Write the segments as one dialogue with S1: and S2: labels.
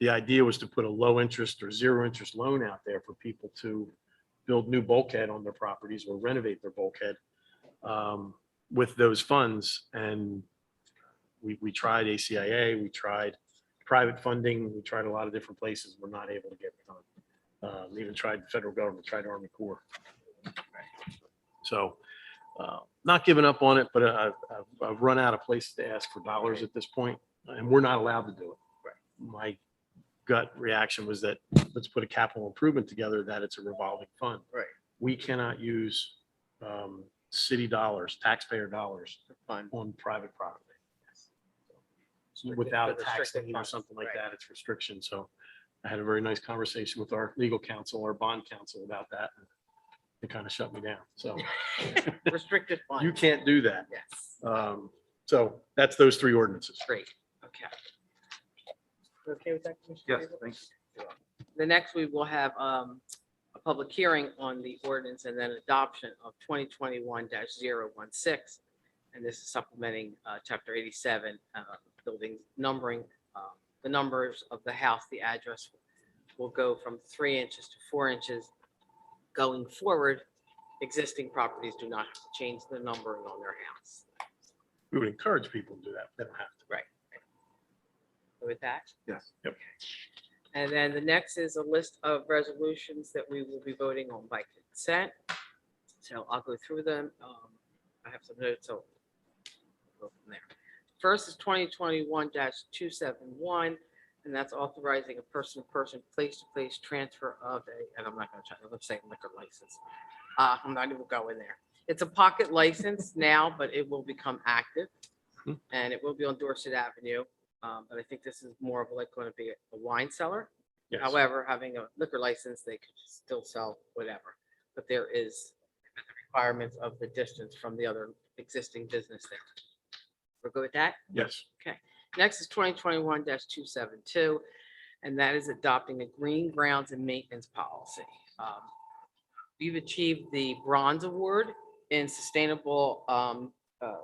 S1: the idea was to put a low interest or zero interest loan out there for people to build new bulkhead on their properties or renovate their bulkhead um, with those funds. And we, we tried ACIA, we tried private funding, we tried a lot of different places. We're not able to get it done. Uh, we Even tried federal government, tried Army Corps. So uh, not giving up on it, but I- I've, I've- I've run out of places to ask for dollars at this point, and we're not allowed to do it. My gut reaction was that let's put a capital improvement together, that it's a revolving fund.
S2: Right.
S1: We cannot use um, city dollars, taxpayer dollars
S2: Fund.
S1: on private property
S2: Restricted-
S1: without a
S2: but
S1: tax
S2: restricted
S1: lien or
S2: funds,
S1: something like
S2: right.
S1: that. It's restriction. So I had a very nice conversation with our legal counsel, our bond counsel about that. They kind of shut me down. So
S2: Restricted
S1: you
S2: funds.
S1: can't do that.
S2: Yes,
S1: Um, so that's those three ordinances.
S2: great, okay. You Okay with that? Commissioner
S3: Yes,
S2: Gable?
S3: thanks.
S2: The next, we will have um, a public hearing on the ordinance and then adoption of twenty twenty-one 16 And this is supplementing uh, chapter eighty-seven, uh, building numbering, uh, the numbers of the house, the address will go from three inches to four inches. Going forward, existing properties do not have to change the numbering on their house.
S1: We would encourage people to do that. They don't have to.
S2: With that,
S3: Yes.
S2: And then the next is a list of resolutions that we will be voting on by consent. So I'll go through them. Um, I have some notes, so we'll go from there. First is twenty twenty-one two seven one, and that's authorizing a person-to-person, place-to-place transfer of a, and I'm not gonna try, I'm saying liquor license. Uh, I'm not even going there. It's a pocket license now, but it will become active.
S1: Hmm.
S2: And it will be on Dorset Avenue. Um, but I think this is more of like going to be a wine cellar.
S1: Yes.
S2: However, having a liquor license, they could still sell whatever. But there is the requirements of the distance from the other existing business there. We're good with that?
S1: Yes.
S2: Next is twenty twenty-one two seven two, and that is adopting a green grounds and maintenance policy. Um, We've achieved the bronze award in sustainable um, uh,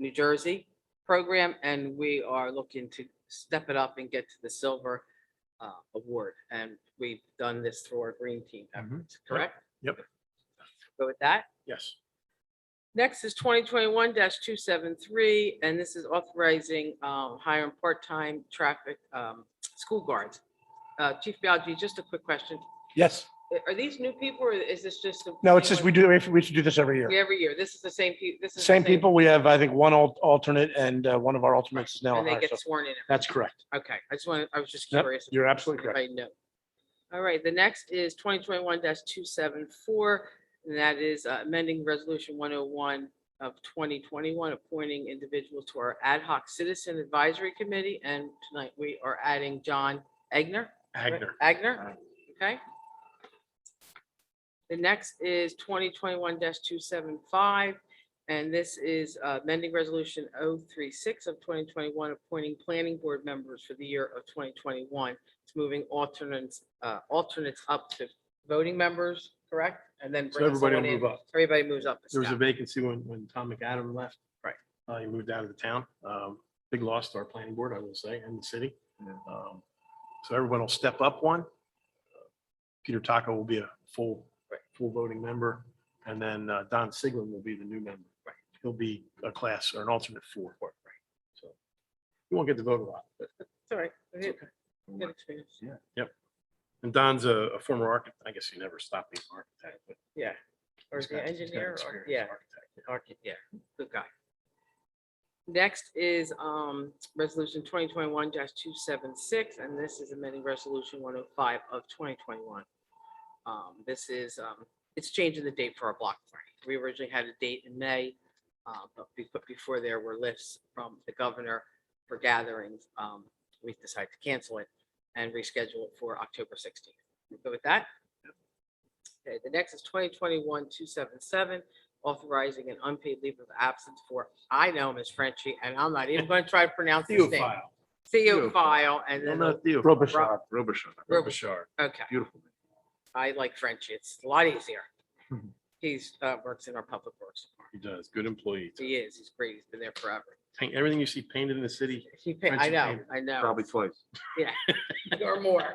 S2: New Jersey program, and we are looking to step it up and get to the silver uh, award. And we've done this through our green team efforts, correct?
S1: Mm-hmm. Yep.
S2: Go with that?
S1: Yes.
S2: Next is twenty twenty-one two seven three, and this is authorizing um, hiring part-time traffic um, school guards. Uh, Chief Biagi, just a quick question.
S4: Yes.
S2: Are- Are these new people or is this just? the-
S4: No, it's just, we do, we should do this every year.
S2: Every year. This is the same people. this is. the
S4: Same people. We have, I think, one al- alternate and uh, one of our alternates is now. on
S2: And they
S4: hire,
S2: get
S4: so
S2: sworn in.
S4: That's correct.
S2: Okay, I just wanted, I was just
S4: Yep,
S2: curious.
S4: You're absolutely correct.
S2: I know. All right, the next is twenty twenty-one two seven four, and that is uh, amending resolution one oh one of twenty twenty-one, appointing individuals to our ad hoc citizen advisory committee, and tonight we are adding John Agner.
S1: Agner.
S2: Agner, okay. The next is twenty twenty-one two seven five, and this is uh, amending resolution 036 of twenty twenty-one, appointing planning board members for the year of twenty twenty-one. It's moving alternates, uh, alternates up to voting members, correct? And then.
S1: So
S2: bringing
S1: everybody
S2: someone
S1: will
S2: in.
S1: move up.
S2: Everybody moves up. a
S1: There was a
S2: step.
S1: vacancy when, when Tom McAdam left.
S2: Right.
S1: Uh, he moved out of the town. Um, big loss to our planning board, I will say, and the city. Um, So everyone will step up one. Peter Taco will be a full,
S2: Right.
S1: full voting member, and then uh, Don Siglin will be the new member.
S2: Right.
S1: He'll be a class or an alternate four. Right. So you won't get to vote a lot, but,
S2: Sorry.
S3: okay. Yeah.
S1: and Don's a, a former architect. I guess he never stopped being an architect, but.
S2: Yeah. Or
S1: he's
S2: the
S1: got- he's got
S2: engineer, or,
S1: experience,
S2: yeah.
S1: architect.
S2: Archi- yeah, good guy. Next is um, Resolution 2021-276, and this is amending Resolution 105 of 2021. Um, This is, um, it's changing the date for our block party. We originally had a date in May, uh, but be- but before there were lists from the governor for gatherings. um, We decided to cancel it and reschedule it for October 16th. We Good with that? Okay, the next is 2021-277, authorizing an unpaid leave of absence for, I know him as Frenchie, and I'm not even going to try to pronounce his name.
S1: Theophile.
S2: Theophile, and
S1: No,
S2: then,
S1: not Theophile.
S4: Robichaud.
S3: Robichaud.
S2: Robichaud. okay,
S3: Beautiful.
S2: I like Frenchie. It's a lot easier.
S1: Mhm.
S2: He's, uh, works in our public works department.
S1: He does. Good employee.
S2: He is, he's great, he's been there forever.
S1: paint, everything you see painted in the city
S2: She, pa- I
S1: Friendship
S2: know,
S1: payment.
S2: I know,
S3: probably twice.
S2: or more.